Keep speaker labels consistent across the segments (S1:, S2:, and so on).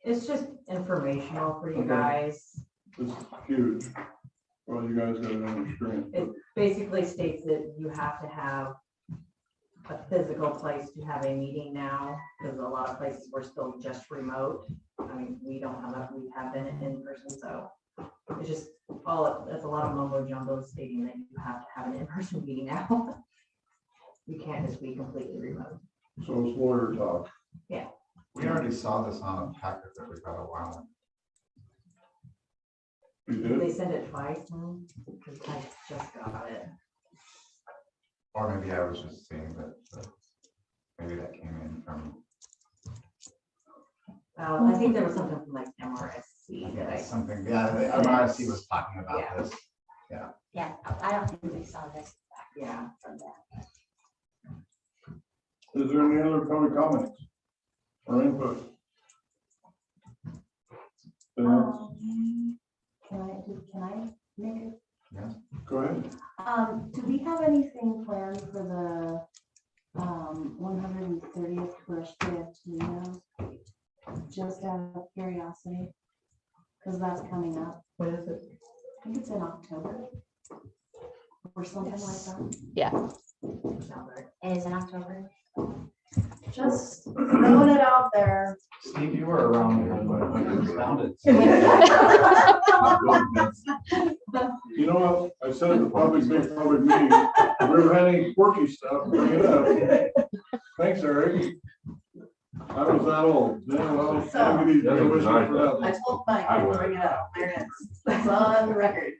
S1: It's just informational for you
S2: Okay.
S1: guys.
S2: This is huge. Well, you guys gotta understand.
S1: Basically states that you have to have a physical place to have a meeting now, because a lot of places were still just remote. I mean, we don't have, that. we have been in person, so it's just all, that's a lot of mumbo jumbo stating that you have to have an in-person meeting now. You can't just be completely remote.
S2: So it's lawyer talk.
S3: We already saw this on a packet that we got a while ago.
S2: You
S1: Did
S2: did?
S1: They send it twice, now? because I just got it.
S3: Or maybe I was just seeing that, uh, maybe that came in from
S1: Um, I think there was something from like MRSC that
S3: yeah,
S1: I,
S3: something, yeah, the MRC was talking about
S1: Yeah.
S3: this.
S4: Yeah, I don't think we saw this
S1: yeah.
S4: from that.
S2: Is there any other public comments or input? Then,
S4: Um, Can I, do- can I make it?
S2: go ahead.
S4: Um, do we have anything planned for the, um, one hundred and thirtieth birthday of Tino? Just out of curiosity, because that's coming up.
S1: What is it?
S4: I think it's in October. Or something like
S5: Yes.
S4: that.
S1: Sounds like-
S5: It is in October.
S4: Just throwing it out there.
S3: Steve, you were around here, but when it was founded.
S2: You know what? I said the public, big public meeting. If we have any quirky stuff, bring it up. Thanks, Eric. I was that old. Then I was- I'm gonna be- I'm wishing for that.
S6: I told Mike, I'll bring it up, there it is, it's on the record.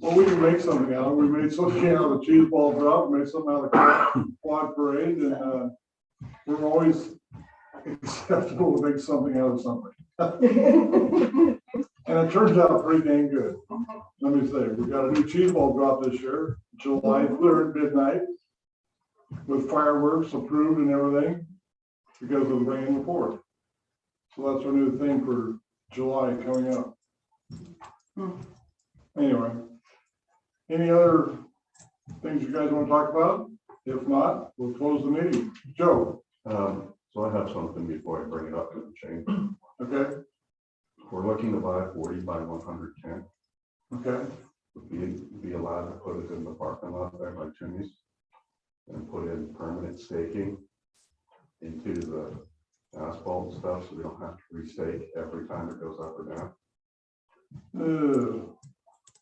S2: Well, we can make something out of it. We made something out of the cheese ball drop, made something out of the quad parade, and, uh, we're always acceptable to make something out of something. And it turns out pretty dang good. Let me say, we got a new cheese ball drop this year, July third midnight, with fireworks approved and everything, because of the rain and the pour. So that's our new thing for July coming up. Anyway, any other things you guys want to talk about? If not, we'll close the meeting. Joe,
S7: Um, so I have something before I bring it up to the change.
S2: okay,
S7: We're looking to buy a forty by one hundred tent.
S2: okay,
S7: Would Be, be allowed to put it in the parking lot there by Timmy's. And put in permanent staking into the asphalt and stuff, so we don't have to restake every time it goes up or down.
S2: Ew,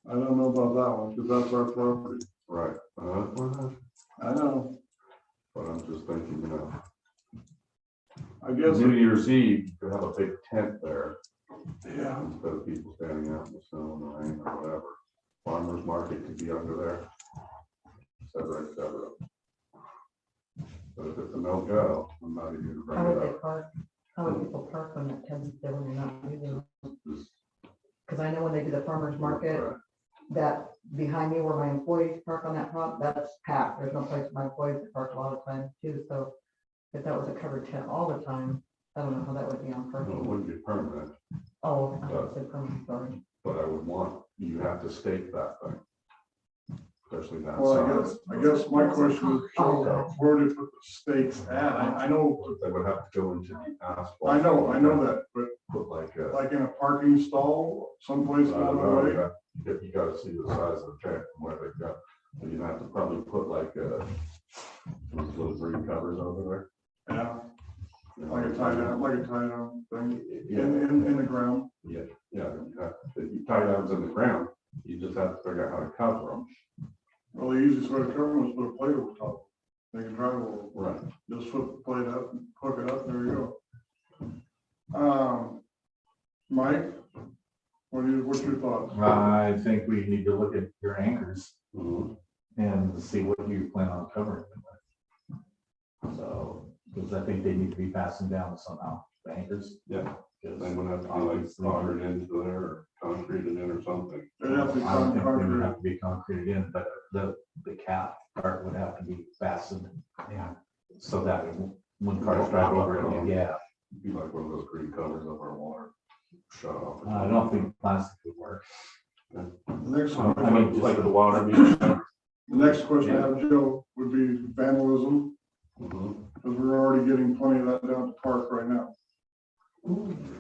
S2: I don't know about that one, because that's our property.
S7: Right. Uh, well,
S2: I know,
S7: But I'm just thinking, you know,
S2: I guess,
S7: New Year's Eve, you have a big tent there
S2: yeah,
S7: instead of people standing out in the snow and the rain or whatever. Farmers market could be under there. et Cetera, et cetera. But if it's a no go, I'm not even gonna
S8: How
S7: bring
S8: would
S7: it
S8: they
S7: up.
S8: park, how would people park on that ten, they were not using?
S7: Just-
S8: Because I know when they do the farmer's market, that behind me where my employees park on that front, that's packed, there's no place for my employees to park a lot of times too, so. If that was a covered tent all the time, I don't know how that would be on
S7: Well, It
S8: parking.
S7: wouldn't be permanent,
S8: Oh, I would say permanent, sorry.
S7: but I would want, you have to stake that thing. Especially that
S2: well, I
S7: size.
S2: guess, I guess my question is, Joe, where do you put the stakes at? I, I know,
S7: But They would have to go into the asphalt.
S2: I know, I know that, but
S7: Put like a.
S2: like in a parking stall someplace
S7: I
S2: out
S7: don't
S2: of the
S7: know,
S2: way.
S7: you got- If you gotta see the size of the tank and where they got, you're gonna have to probably put like uh those little green covers over
S2: Yeah,
S7: there.
S2: like a tie down, like a tie down thing, in,
S7: Yeah,
S2: in, in the ground.
S7: yeah, you have- if you tie downs in the ground, you just have to figure out how to cover them.
S2: Well, the easiest way to cover them is put a plate over top. They can drive over.
S7: Right.
S2: Just flip the plate up, and hook it up, there you go. Um, Mike, what are you, what's your thoughts?
S3: I think we need to look at your anchors
S2: Mm-hmm.
S7: Mhm.
S3: and see what you plan on covering them with. So, because I think they need to be fastened down somehow, the anchors.
S7: Yeah. They
S3: Because
S7: would have to be like soldered into there or concreted in or something.
S2: They'd have to be
S3: I don't think they would
S2: concrete.
S3: have to be concreted in, but the, the cap part would have to be fastened.
S7: Yeah.
S3: So that when cars drive over it, yeah,
S7: Be like one of those green covers over a water shut off.
S3: Uh, I don't think plastic would work.
S2: The next one,
S3: I mean, just
S7: Like
S3: like
S7: the water. meter.
S2: the next question I have, Joe, would be vandalism,
S7: Mhm.
S3: Mm-hmm.
S2: because we're already getting plenty of that down at the park right now.